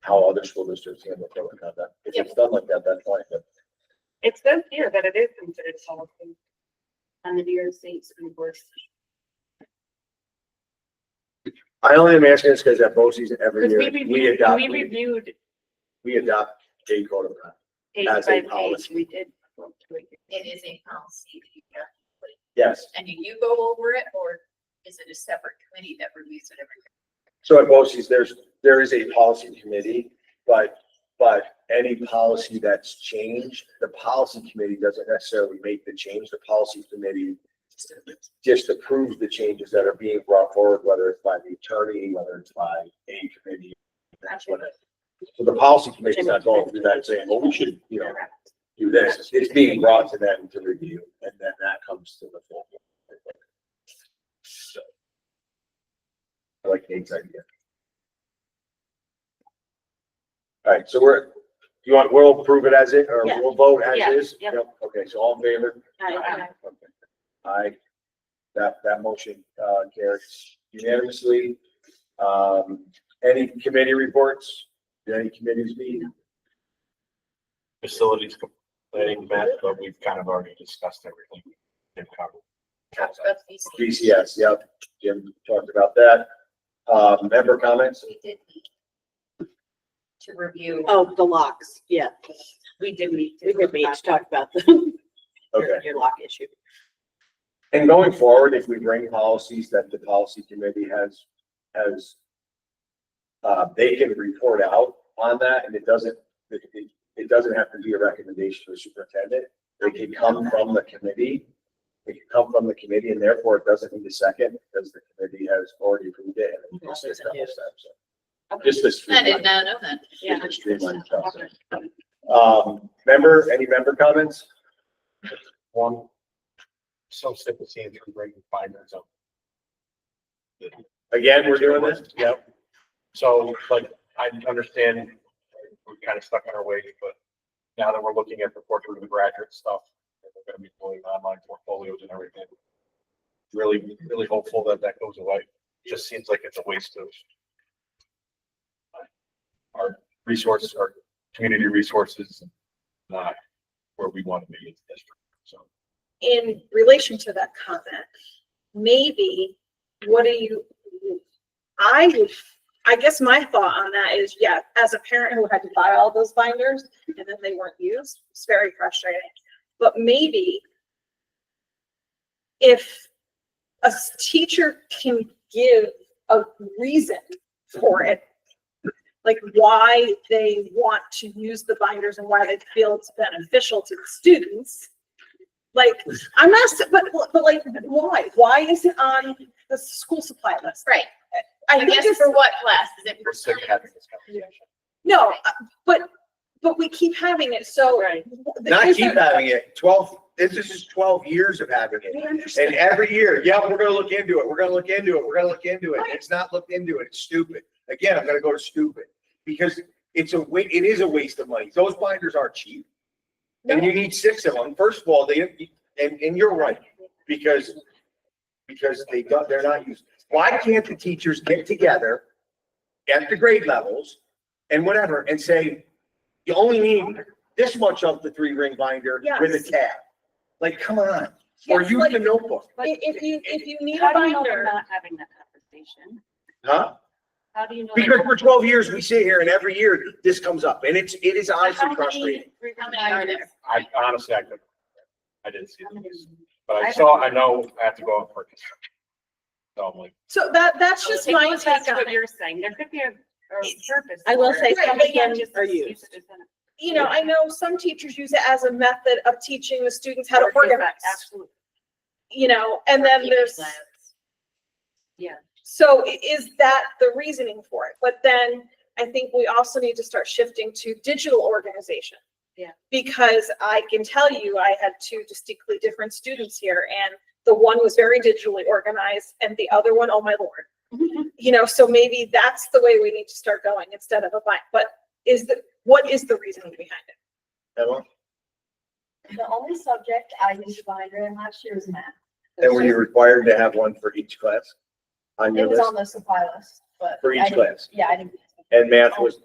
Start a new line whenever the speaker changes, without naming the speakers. how other school districts handle code of conduct. If it's done like that, that's fine, but
It says here that it is considered policy.
on the New York State Supreme Court.
I only am asking this because at BOSI's every
Because
year,
we
we
reviewed,
adopt,
we reviewed
we adopt a code of conduct.
page
As a
by page,
policy.
we did.
It is a policy that you have,
Yes.
and do you go over it, or is it a separate committee that reviews it every?
So at BOSI's, there's, there is a policy committee, but, but any policy that's changed, the policy committee doesn't necessarily make the change. The policy committee just approves the changes that are being brought forward, whether it's by the attorney, whether it's by a committee. That's what it, so the policy committee's not going through that saying, well, we should, you know, do this. It's being brought to them to review and then that comes to the full. board. So. I like Nate's idea. All right, so we're, you want, we'll approve it as it, or
Yeah.
we'll vote as
Yeah,
is?
yep.
Okay, so all in favor?
Aye.
Okay. Aye. That, that motion, uh, carries unanimously. Um, any committee reports? Did any committees meet?
facilities planning met, but we've kind of already discussed everything. They've covered.
Talked about these things.
BCS, yep. Jim talked about that. Uh, member comments?
We did meet to review.
Oh, the locks, yeah.
We did meet.
We did meet to talk about the,
Okay.
your, your lock issue.
And going forward, if we bring policies that the policy committee has, has, uh, they can report out on that and it doesn't, it, it, it doesn't have to be a recommendation to the superintendent. It can come from the committee. It can come from the committee and therefore it doesn't need a second because the committee has already approved it. and it's just a double step, so. Just this.
I did not know that.
Yeah.
Streamline process. Um, member, any member comments?
One, some sympathy and three breaking findings of.
Again, we're doing this?
Yep. So like, I understand we're kind of stuck in our ways, but now that we're looking at the portrait of the graduate stuff, and we're gonna be doing online portfolios and everything. Really, really hopeful that that goes away. Just seems like it's a waste of our resources, our community resources, not where we want to be as a district, so.
in relation to that comment, maybe, what do you, I would, I guess my thought on that is, yeah, as a parent who had to buy all those binders and then they weren't used, it's very frustrating. But maybe if a s- teacher can give a reason for it, like why they want to use the binders and why they feel it's beneficial to the students, like, I'm not, s- but, but like, why? Why is it on the school supply list?
Right,
I
I
think
guess
it's,
for what class? Is it
We're
for
sick of having this conversation.
no, uh, but, but we keep having it, so.
Right.
the-
Not
is
keep
that-
having it. Twelve, this is just twelve years of having it.
We
And
understand.
every year, yeah, we're gonna look into it. We're gonna look into it. We're gonna look into it. It's not looked into it. It's stupid. Again, I'm gonna go to stupid. Because it's a wa, it is a waste of money. Those binders are cheap. And you need six of them. First of all, they, and, and you're right, because, because they don't, they're not used. Why can't the teachers get together at the grade levels and whatever and say, you only need this much of the three ring binder with a
Yes.
tab? Like, come on, or
Yes,
use
like-
the notebook,
I- If you, if you need a
How do you know we're
binder,
not having that conversation?
huh?
How do you know?
Because for twelve years, we sit here and every year this comes up and it's, it is honestly frustrating.
How many are there?
I honestly, I couldn't. I didn't see the list, but
I
I
don't
saw,
know.
I know I have to go out for construction. So I'm like,
so that, that's just
Okay,
my
well, That's
take on
what
it.
you're saying. There could be a, a purpose.
I will
for
say
it.
some
Right,
of
yeah,
them
just
are
use it
used.
as an-
You know, I know some teachers use it as a method of teaching the students how to
Or is that
organize,
Absolutely.
you know, and then there's. So i- is that the reasoning for it? But then I think we also need to start shifting to digital organization.
Yeah.
Because I can tell you, I had two distinctly different students here and the one was very digitally organized and the other one, oh my lord. You know, so maybe that's the way we need to start going instead of a bind, but is the, what is the reasoning behind it?
Emma,
The only subject I used a binder in last year was math.
And were you required to have one for each class on
It
your
was
list?
on the supply list, but.
For each
I didn't-
class.
Yeah, I didn't.
Oh,
And math was